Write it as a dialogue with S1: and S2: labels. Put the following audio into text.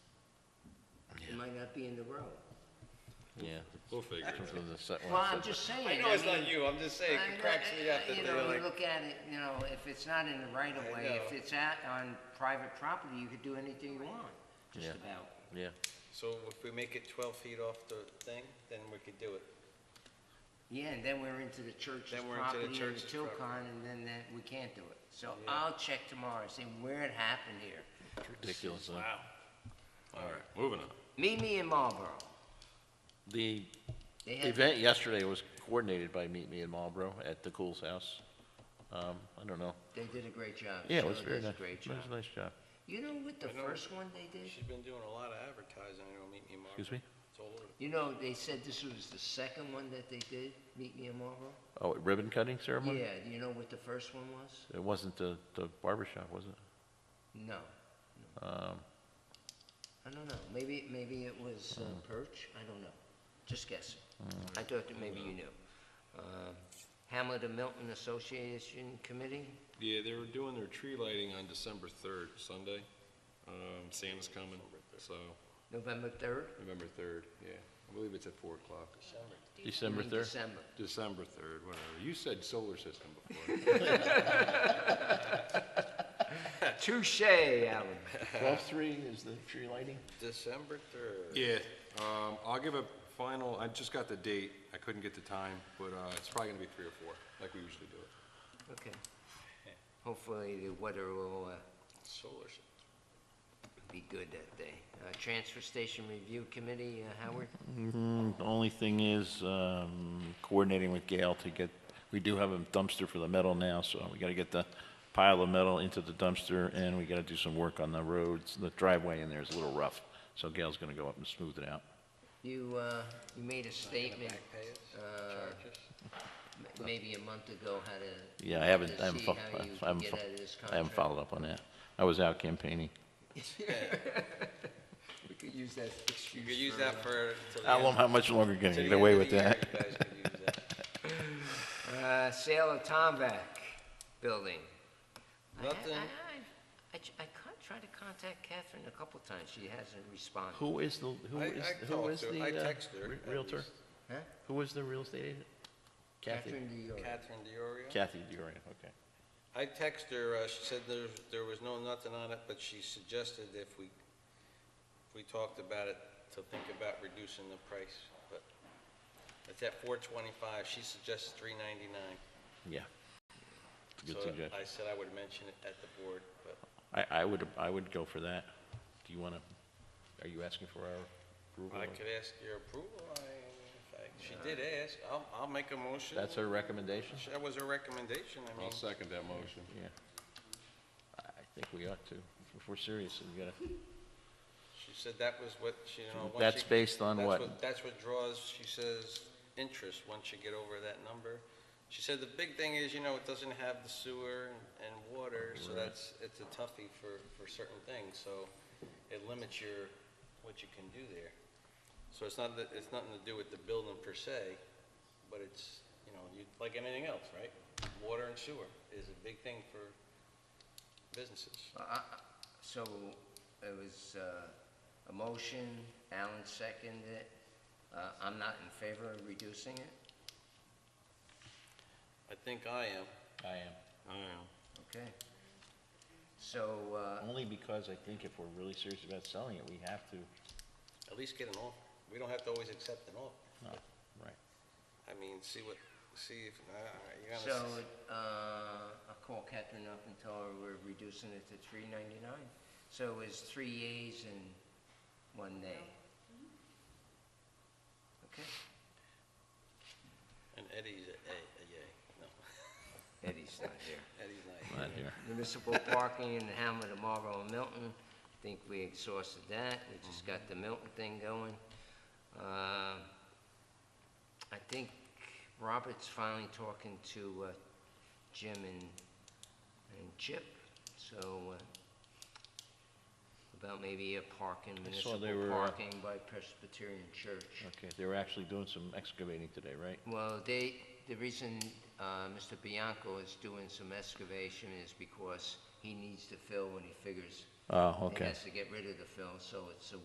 S1: might not be in the road.
S2: Yeah,
S3: We'll figure it out.
S2: so the set
S1: Well,
S2: one.
S1: I'm just saying.
S4: I know it's
S1: mean,
S4: not you, I'm just saying,
S1: I
S4: it
S1: know- uh,
S4: cracks me up that
S1: You
S4: they're
S1: know, you
S4: like,
S1: look at it, you know, if it's not in the right of
S4: I
S1: way, if
S4: know.
S1: it's at, on private property, you could do anything you want, just
S2: Yeah.
S1: about.
S2: Yeah,
S4: so if we make it twelve feet off the thing, then we could do it.
S1: Yeah, and then we're into the church's
S4: Then we're into the
S1: property and the
S4: church's property.
S1: Tilcon, and then that, we can't do it. So I'll check tomorrow, see where it happened here.
S2: ridiculous. huh?
S3: All right, moving on.
S1: Meet me in Marlboro.
S2: The
S1: They had-
S2: event yesterday was coordinated by Meet Me in Marlboro at the Cool's House. Um, I don't know.
S1: They did a great job.
S2: Yeah, it was
S1: Shirley
S2: very
S1: does a
S2: nice.
S1: Great
S2: It was
S1: job.
S2: a nice job.
S1: You know what the
S4: I know.
S1: first one they did?
S4: She's been doing a lot of advertising, I know, Meet Me Mark.
S2: Excuse me?
S4: It's all over.
S1: You know, they said this was the second one that they did, Meet Me in Marlboro?
S2: Oh, ribbon cutting ceremony?
S1: Yeah, do you know what the first one was?
S2: It wasn't the, the barber shop, was it?
S1: No,
S2: Um,
S1: I don't know. Maybe, maybe it was uh,
S2: Hmm.
S1: Perch? I don't know. Just guessing. I thought that maybe you knew. Um, Hamlet and Milton Association Committee?
S3: Yeah, they were doing their tree lighting on December third, Sunday. Um, Santa's coming, so
S1: November 3rd?
S3: November third, yeah. I believe it's at four o'clock.
S2: December
S1: In
S2: third?
S1: December.
S3: December third, whatever. You said solar system before.
S1: Uh, Touche, Alan.
S2: Twelve-three is the tree lighting?
S4: December third.
S3: Yeah, um, I'll give a final, I just got the date, I couldn't get the time, but, uh, it's probably gonna be three or four, like we usually do it.
S1: Okay. Hopefully the weather will uh,
S4: Solar. s-
S1: be good that day. Uh, Transfer Station Review Committee, uh, Howard?
S2: Mm, The only thing is, um, coordinating with Gail to get, we do have a dumpster for the metal now, so we gotta get the pile of metal into the dumpster, and we gotta do some work on the roads, the driveway in there is a little rough, so Gail's gonna go up and smooth it out.
S1: You, uh, you made a
S4: Gonna
S1: statement
S4: back pay us,
S1: uh,
S4: charge us.
S1: m- maybe a month ago how to.
S2: Yeah, I haven't,
S1: to
S2: I haven't,
S1: see
S2: fo-
S1: how you
S2: I haven't,
S1: get
S2: fo-
S1: out of this
S2: I haven't
S1: contract.
S2: followed up on that. I was out campaigning.
S1: We could use that
S4: You
S1: excuse.
S4: could use that for. till the
S2: I don't
S4: end-
S2: know how much longer can
S4: till
S2: I
S4: the
S2: get
S4: end
S2: away
S4: of
S2: with
S4: the year,
S2: that.
S4: you guys could use that.
S1: Uh, sale of Tomback building. I- I-
S4: Nothing.
S1: I, I, I con- tried to contact Catherine a couple times, she hasn't responded.
S2: Who is the, who
S4: I-
S2: is,
S4: I
S2: who
S4: talked
S2: is
S4: to her.
S2: the
S4: I
S2: uh,
S4: texted her,
S2: re-
S4: at
S2: Realtor?
S4: least.
S1: Huh?
S2: Who is the real estate agent? Kathy,
S1: Catherine Dior.
S4: Catherine Diorio.
S2: Kathy Durian, okay.
S4: I texted her, uh, she said there, there was no nothing on it, but she suggested if we, if we talked about it, to think about reducing the price, but it's at four twenty-five, she suggests three ninety-nine.
S2: Yeah. It's a good
S4: So I
S2: suggestion.
S4: said I would mention it at the board, but
S2: I, I would, I would go for that. Do you want to, are you asking for our approval?
S4: I
S2: or-
S4: could ask your approval, I, if I, she did ask, I'll, I'll make a motion.
S2: That's her recommendation?
S4: That was her recommendation, I mean,
S3: I'll second that motion.
S2: Yeah. I I think we ought to. If we're serious, we gotta,
S4: she said that was what, she, you know, once
S2: That's
S4: you-
S2: based on
S4: that's
S2: what?
S4: That's what draws, she says, interest, once you get over that number. She said the big thing is, you know, it doesn't have the sewer and- and water, so that's, it's a toughie for, for certain things, so it limits your, what you can do there. So it's not, that it's nothing to do with the building per se, but it's, you know, you, like anything else, right? Water and sewer is a big thing for businesses.
S1: Uh, uh, So it was uh, a motion, Alan seconded it. Uh, I'm not in favor of reducing it,
S4: I think I am.
S2: I am.
S3: I am.
S1: okay? So, uh,
S2: Only because I think if we're really serious about selling it, we have to.
S4: At least get an offer. We don't have to always accept an offer.
S2: No, Oh, right.
S4: I mean, see what, see if, uh, you're
S1: so
S4: gonna, s-
S1: uh, I'll call Catherine up and tell her we're reducing it to three ninety-nine. So it was three yeas and one nay. Okay,
S4: and Eddie's a, a, a yay. No,
S1: Eddie's not here.
S4: Eddie's not
S2: Not
S4: here.
S2: here.
S1: municipal parking in the hamlet of Marlboro and Milton. I Think we exhausted that, we just got the Milton thing going. Uh, I think Robert's finally talking to uh, Jim and, and Chip, so, uh, about maybe a parking,
S2: I saw
S1: municipal
S2: they were, uh,
S1: parking by Presbyterian Church.
S2: Okay, they were actually doing some excavating today, right?
S1: Well, they, the reason uh, Mr. Bianco is doing some excavation is because he needs to fill when he figures
S2: Oh,
S1: he
S2: okay.
S1: has to get rid of the fill, so it's a